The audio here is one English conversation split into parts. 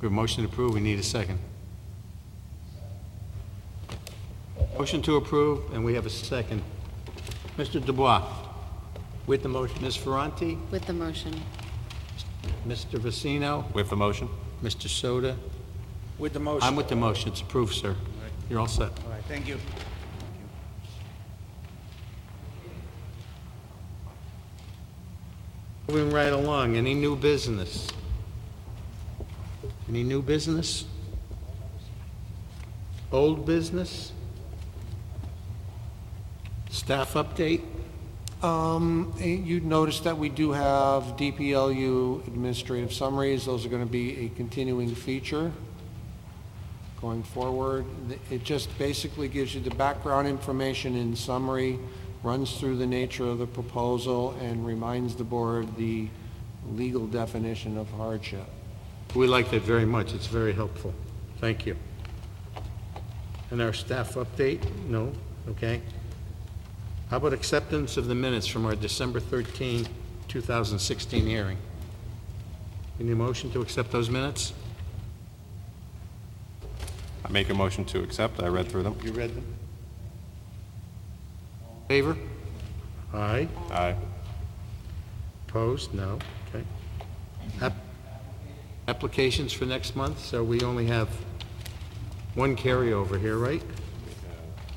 We have a motion to approve, we need a second. Motion to approve, and we have a second. Mr. Dubois, with the motion, Ms. Ferranti, With the motion. Mr. Vecino, With the motion? Mr. Soda. With the I'm motion. with the motion, it's approved, sir. You're all set. All right, thank you. Moving right along, any new business? Any new business? Old business? Staff update? Um, eh, you'd notice that we do have DPLU administrative summaries. Those are gonna be a continuing feature going forward. Th- It just basically gives you the background information in summary, runs through the nature of the proposal, and reminds the board the legal definition of hardship. We like that very much, it's very helpful. Thank you. And our staff update? No? Okay. How about acceptance of the minutes from our December 13, 2016 hearing? Any motion to accept those minutes? I make a motion to accept. I read through them. You read them? Favor? Aye. Aye. Opposed? No. Okay. App- Applications for next month, so we only have one carryover here, right?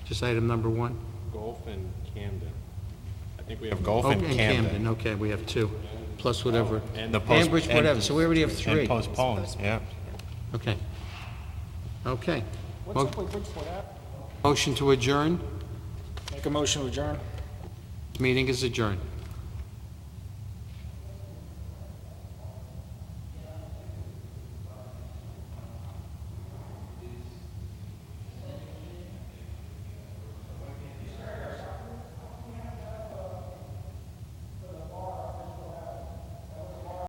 Just item number one? Golf and Camden. I think we have golf Oh, and Camden. Okay, we have two, plus whatever. And the post- Ambridge, and- whatever, so we already have And three. postpone, yeah. Okay. Okay. Mo- Motion to adjourn, Make a motion to adjourn. meeting is adjourned.